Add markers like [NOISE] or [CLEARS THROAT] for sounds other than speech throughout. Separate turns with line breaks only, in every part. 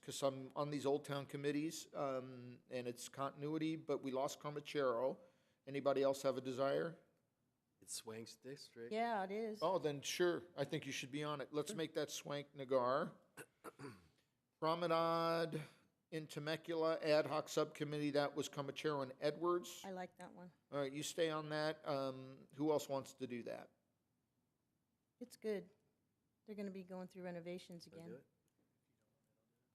because I'm on these Old Town committees, um, and it's continuity, but we lost Carmachero. Anybody else have a desire?
It's Swank's district.
Yeah, it is.
Oh, then sure, I think you should be on it. Let's make that Swank Nagar. [CLEARS THROAT] Promenade in Temecula Ad Hoc Subcommittee, that was Comachero and Edwards.
I like that one.
All right, you stay on that. Um, who else wants to do that?
It's good. They're gonna be going through renovations
Wanna
again.
do it?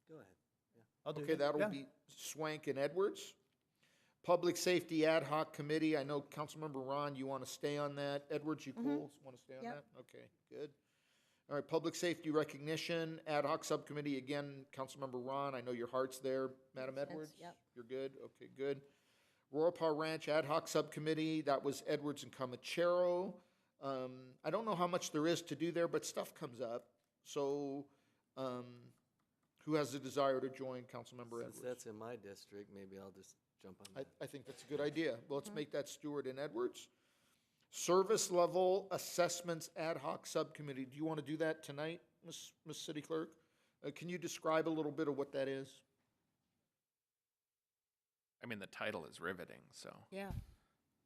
Go ahead.
I'll do
Okay,
that.
that'll
Yeah.
be Swank and Edwards. Public Safety Ad Hoc Committee, I know Councilmember Ron, you want to stay on that. Edwards, you cool? Want to stay on that?
Yep.
Okay, good. All right, Public Safety Recognition Ad Hoc Subcommittee, again, Councilmember Ron, I know your heart's there. Madam
Makes sense,
Edwards?
yep.
You're good? Okay, good. Rorpaw Ranch Ad Hoc Subcommittee, that was Edwards and Comachero. Um, I don't know how much there is to do there, but stuff comes up. So, um, who has the desire to join Councilmember
Since
Edwards?
that's in my district, maybe I'll just jump on
I,
that.
I think that's a good idea. Well, let's make that Stewart and Edwards. Service Level Assessments Ad Hoc Subcommittee, do you want to do that tonight, Ms., Ms. City Clerk? Uh, can you describe a little bit of what that is?
I mean, the title is riveting, so.
Yeah,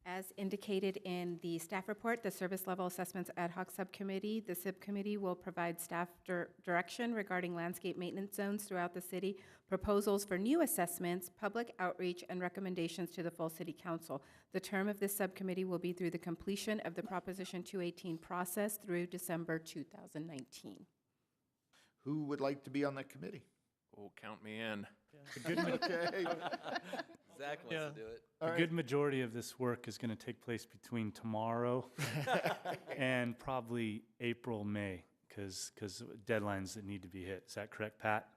As indicated in the staff report, the Service Level Assessments Ad Hoc Subcommittee, the subcommittee will provide staff dir- direction regarding landscape maintenance zones throughout the city, proposals for new assessments, public outreach, and recommendations to the full city council. The term of this subcommittee will be through the completion of the Proposition 218 process through December 2019.
Who would like to be on that committee?
Oh, count me in.
The good, ma-
[LAUGHS] Okay,
Zach
Yeah.
wants to do it.
the good majority of this work is going to take place
[LAUGHS]
between tomorrow and probably April, May, because deadlines that need to be hit. Is that correct, Pat?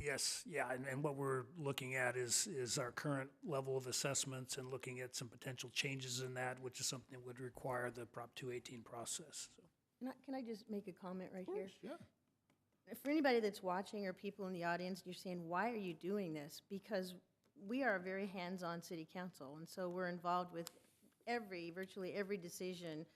Yes, yeah, and, and what we're looking at is, is our current level of assessments and looking at some potential changes in that, which is something that would require the Prop two eighteen process. So
can I, can I just make a comment right here?
yeah.
For anybody that's watching or people in the audience, you're saying, why are you doing this? Because we are a very hands-on city council, and so we're involved with every, virtually every decision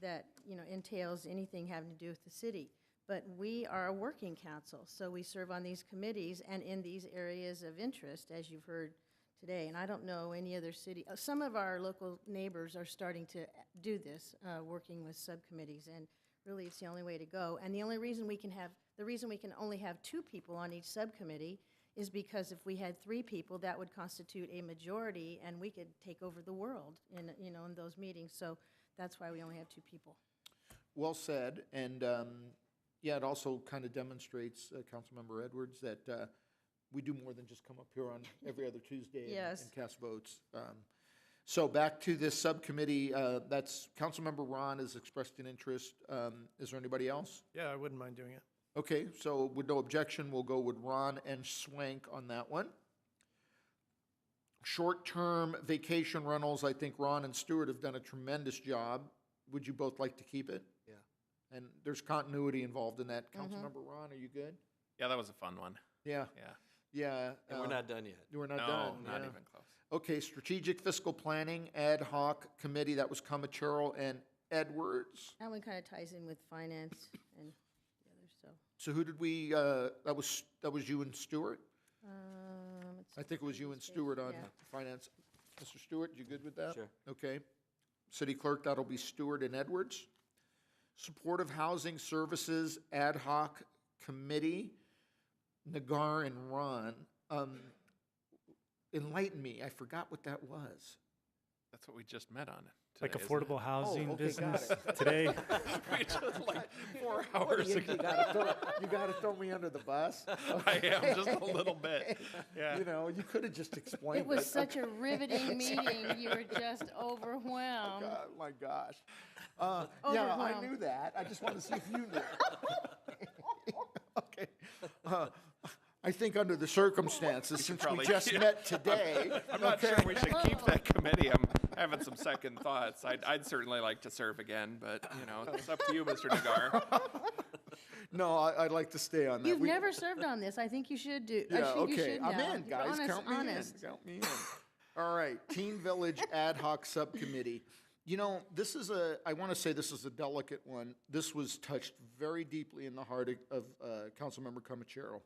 that, you know, entails anything having to do with the city. But we are a working council, so we serve on these committees and in these areas of interest, as you've heard today. And I don't know any other city, uh, some of our local neighbors are starting to do this, uh, working with subcommittees. And really, it's the only way to go. And the only reason we can have, the reason we can only have two people on each subcommittee is because if we had three people, that would constitute a majority, and we could take over the world in, you know, in those meetings. So that's why we only have two people.
Well said, and, um, yeah, it also kind of demonstrates, uh, Councilmember Edwards, that, uh, we do more than just come up here on every other Tuesday and-
Yes.
and cast votes. Um, So back to this subcommittee, uh, that's, Councilmember Ron has expressed an interest. Um, Is there anybody else?
Yeah, I wouldn't mind doing it.
Okay, so with no objection, we'll go with Ron and Swank on that one. Short-term vacation rentals, I think Ron and Stewart have done a tremendous job. Would you both like to keep it?
Yeah.
And there's continuity involved in that. Councilmember Ron, are you good?
Yeah, that was a fun one.
Yeah,
Yeah.
yeah.
And we're
uh,
not done yet.
We're not
No,
done.
not
yeah.
even close.
Okay, Strategic Fiscal Planning Ad Hoc Committee, that was Comachero and Edwards.
That one kind of ties in with finance and the others, so.
So who did we, uh, that was, that was you and Stewart?
um, it's-
I think it was you and Stewart on
Yeah.
finance. Mr. Stewart, you good with that?
Sure.
Okay. City Clerk, that'll be Stewart and Edwards. Supportive Housing Services Ad Hoc Committee, Nagar and Ron. Um, Enlighten me, I forgot what that was.
That's what we just met on.
Like
today, isn't it?
affordable housing
Oh, okay, got
business
[LAUGHS]
today?
[LAUGHS] We just like four hours
You
ago.
gotta throw, you gotta throw me under the bus.
[LAUGHS] I am just a
[LAUGHS]
little bit. Yeah.
You know, you could have just explained.
It was such a
[LAUGHS]
riveting meeting, you were just
Um,
overwhelmed.
Oh my gosh. Uh,
Oh,
yeah, I
Overwhelmed.
knew that. I just wanted to see if you knew. [LAUGHS] okay. Uh, I think under the circumstances, since we
probably-
just
yeah.
met today.
I'm not sure we should keep that committee. I'm having some second thoughts. I'd, I'd certainly like to serve again, but you know, it's up to you, Mr. Nagar.
No, I, I'd like to stay on that.
You've
We-
never served on this. I think you should do, I
Yeah,
think you
okay.
should now.
I'm in,
You're
guys.
honest-
Count me
honest.
in. Count me in. All right, Teen Village Ad Hoc Subcommittee. You know, this is a. I want to say this is a delicate one. This was touched very deeply in the heart of, of uh, Councilmember Comachero.